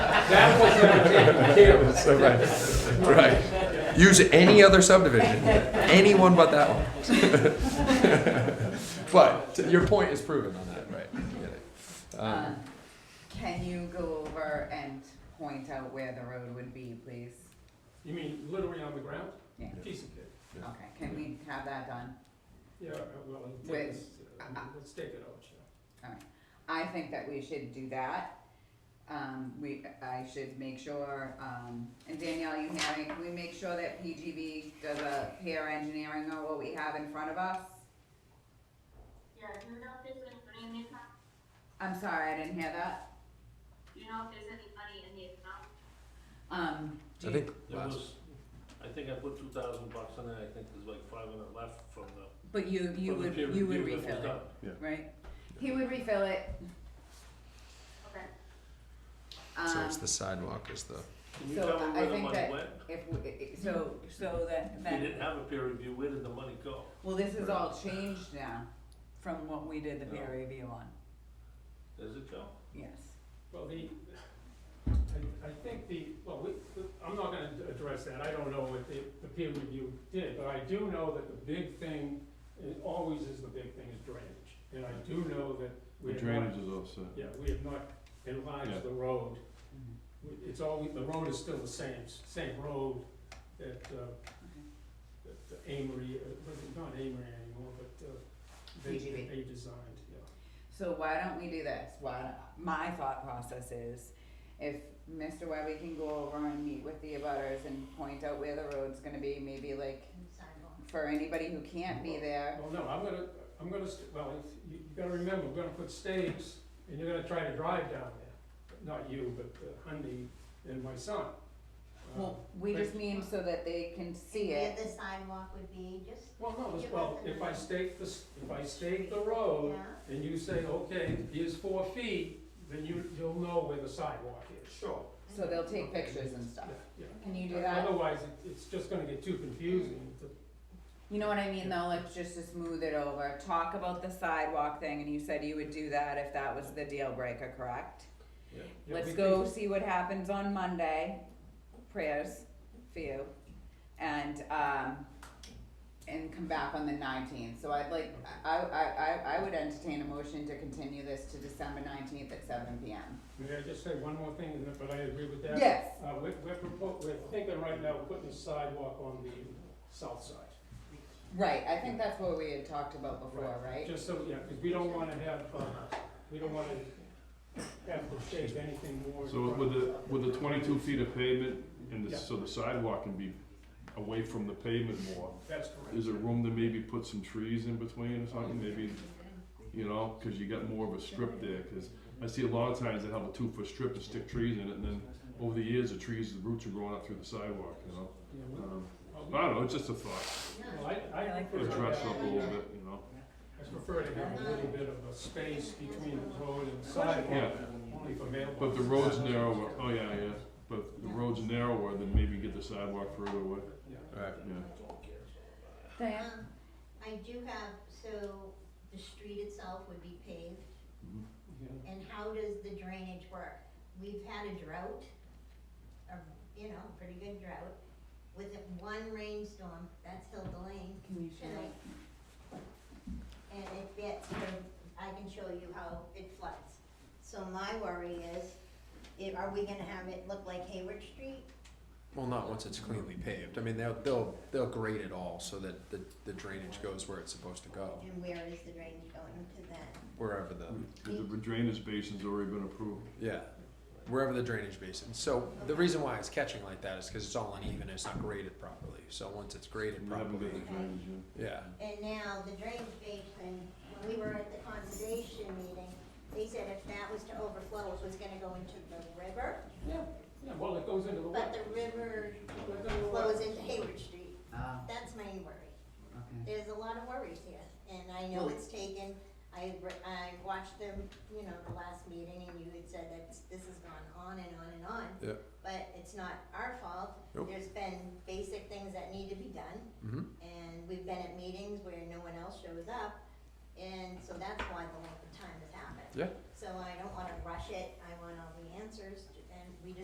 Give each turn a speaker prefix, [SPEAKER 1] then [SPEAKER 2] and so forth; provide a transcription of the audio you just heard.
[SPEAKER 1] That was entertaining.
[SPEAKER 2] So, right, right. Use any other subdivision, anyone but that one. But your point is proven on that, right? Get it. Um,
[SPEAKER 3] Um, Can you go over and point out where the road would be, please?
[SPEAKER 1] You mean literally on the ground?
[SPEAKER 3] Yeah,
[SPEAKER 1] Piece of cake.
[SPEAKER 3] okay, can we have that done?
[SPEAKER 1] Yeah, uh, well, let's take
[SPEAKER 3] Wait.
[SPEAKER 1] this, uh, let's take it out, yeah.
[SPEAKER 3] I think that we should do that. Um, we, I should make sure, um, and Danielle, you having, we make sure that PGB does a peer engineering of what we have in front of us?
[SPEAKER 4] Yeah, do you know if there's any money in the account?
[SPEAKER 3] I'm sorry, I didn't hear that.
[SPEAKER 4] Do you know if there's any money in the account?
[SPEAKER 3] Um, do
[SPEAKER 2] I
[SPEAKER 3] you-
[SPEAKER 2] think
[SPEAKER 5] There
[SPEAKER 2] last,
[SPEAKER 5] was, I think I put two thousand bucks in there, I think there's like five hundred left from the,
[SPEAKER 3] but you, you
[SPEAKER 5] from the
[SPEAKER 3] would,
[SPEAKER 5] peer
[SPEAKER 3] you would
[SPEAKER 5] review that was done.
[SPEAKER 3] refill it, right? He would refill it,
[SPEAKER 4] Okay.
[SPEAKER 2] so it's
[SPEAKER 3] um,
[SPEAKER 2] the sidewalk is the,
[SPEAKER 5] Can you
[SPEAKER 3] So
[SPEAKER 5] tell me
[SPEAKER 3] I
[SPEAKER 5] where the
[SPEAKER 3] think
[SPEAKER 5] money
[SPEAKER 3] that-
[SPEAKER 5] went?
[SPEAKER 3] if, we- so, so that,
[SPEAKER 5] We
[SPEAKER 3] then.
[SPEAKER 5] didn't have a peer review, where did the money go?
[SPEAKER 3] Well, this is all changed now from what we did the peer
[SPEAKER 5] No.
[SPEAKER 3] review on,
[SPEAKER 5] Does it go?
[SPEAKER 3] yes.
[SPEAKER 1] Well, the, I, I think the, well, we, I'm not gonna address that, I don't know what the, the peer review did, but I do know that the big thing, it always is the big thing, is drainage. And I do know that we
[SPEAKER 6] The
[SPEAKER 1] have not,
[SPEAKER 6] drainage is also,
[SPEAKER 1] yeah, we have not
[SPEAKER 6] Yeah.
[SPEAKER 1] enlarged the road. It's always, the road is still the same, same road that, uh, that the Amory, uh, well, not Amory anymore, but, uh, they,
[SPEAKER 3] PGB.
[SPEAKER 1] they designed, yeah.
[SPEAKER 3] So why don't we do this? Why, don't- my thought process is, if Mr. Webby can go over and meet with the abutters and point out where the road's gonna be, maybe like, for anybody who can't be there,
[SPEAKER 1] Well, no, I'm gonna, I'm gonna, st- well, it's- you, you gotta remember, we're gonna put staves, and you're gonna try to drive down there. Not you, but uh, Hundy and my son. Uh,
[SPEAKER 3] well, we just mean so that they can see it.
[SPEAKER 7] Where the sidewalk would be, just,
[SPEAKER 1] Well, no, it's-
[SPEAKER 7] Give
[SPEAKER 1] well,
[SPEAKER 7] us an
[SPEAKER 1] if I stake the, s- if I stake the road,
[SPEAKER 7] yeah,
[SPEAKER 1] and you say, okay, here's four feet, then you, you'll know where the sidewalk is. Sure.
[SPEAKER 3] So they'll take pictures and stuff.
[SPEAKER 1] Yeah.
[SPEAKER 3] Can you do
[SPEAKER 1] Uh,
[SPEAKER 3] that? Mm.
[SPEAKER 1] Otherwise, it, it's just gonna get too confusing to
[SPEAKER 3] You know what I mean though, like just to smooth it over, talk about the sidewalk thing, and you said you would do that if that was the deal breaker, correct?
[SPEAKER 5] Yeah.
[SPEAKER 1] Yeah,
[SPEAKER 3] Let's
[SPEAKER 1] we-
[SPEAKER 3] go see what happens on Monday, prayers for you, and, um, and come back on the nineteenth, so I'd like, I, I, I, I would entertain a motion to continue this to December nineteenth at seven P M.
[SPEAKER 1] May I just say one more thing, and then- but I agree with that?
[SPEAKER 3] Yes.
[SPEAKER 1] Uh, we're, we're propo- we're thinking right now, of putting a sidewalk on the south side.
[SPEAKER 3] Right, I think that's what we had talked about before, right?
[SPEAKER 1] Just so, yeah, because we don't wanna have, uh, we don't wanna have to shave anything more.
[SPEAKER 6] so with the, with the twenty-two feet of pavement, and
[SPEAKER 1] Yeah.
[SPEAKER 6] the, so the sidewalk can be away from the pavement more,
[SPEAKER 1] That's correct.
[SPEAKER 6] is there room to maybe put some trees in between or something, maybe, you know, cause you got more of a strip there, cause I see a lot of times they have a two-foot strip and stick trees in it, and then over the years, the trees, the roots are growing up through the sidewalk, you know?
[SPEAKER 1] Yeah, we-
[SPEAKER 6] Um,
[SPEAKER 1] well,
[SPEAKER 6] I don't know, it's just a thought,
[SPEAKER 1] well, I, I prefer to
[SPEAKER 6] dress up a
[SPEAKER 1] have,
[SPEAKER 6] little bit, you know?
[SPEAKER 1] I prefer to have a little bit of a space between the road and the sidewalk, only for mailboxes.
[SPEAKER 6] But the road's narrower, oh yeah, yeah, but the road's narrower, then maybe get the sidewalk further away,
[SPEAKER 1] Yeah.
[SPEAKER 2] right,
[SPEAKER 6] yeah.
[SPEAKER 3] Diane?
[SPEAKER 7] um, I do have, so the street itself would be paved,
[SPEAKER 1] Yeah.
[SPEAKER 7] and how does the drainage work? We've had a drought, a, you know, pretty good drought, with one rainstorm, that's Hilda Lane
[SPEAKER 3] Can you share?
[SPEAKER 7] tonight. And it gets, I can show you how it floods. So my worry is, i- are we gonna have it look like Hayward Street?
[SPEAKER 2] well, not once it's cleanly paved. I mean, they'll, they'll, they'll grade it all so that the, the drainage goes where it's supposed to go,
[SPEAKER 7] And where is the drainage going to then?
[SPEAKER 2] wherever the,
[SPEAKER 6] The drainage basin's already been approved.
[SPEAKER 2] yeah, wherever the drainage basin. So the reason why it's catching like that is because it's all uneven, it's not graded properly. So once it's graded
[SPEAKER 6] We haven't
[SPEAKER 2] properly,
[SPEAKER 6] got the drainage in.
[SPEAKER 2] yeah.
[SPEAKER 7] And now the drainage basin, when we were at the conservation meeting, they said if that was to overflow, it was gonna go into the river,
[SPEAKER 1] Yeah, yeah, well, it goes into the.
[SPEAKER 7] but the river
[SPEAKER 1] Goes into the
[SPEAKER 7] flows into Hayward Street.
[SPEAKER 3] Oh,
[SPEAKER 7] That's my worry.
[SPEAKER 3] okay.
[SPEAKER 7] There's a lot of worries here, and I know it's taken, I, re- I watched them, you know, the last meeting, and you had said that this has gone on and on and on.
[SPEAKER 2] Yeah.
[SPEAKER 7] But it's not our fault.
[SPEAKER 2] Nope.
[SPEAKER 7] There's been basic things that need to be done,
[SPEAKER 2] hmm
[SPEAKER 7] and we've been at meetings where no one else shows up, and so that's why the length of time has happened.
[SPEAKER 2] Yeah.
[SPEAKER 7] So I don't wanna rush it, I want all the answers to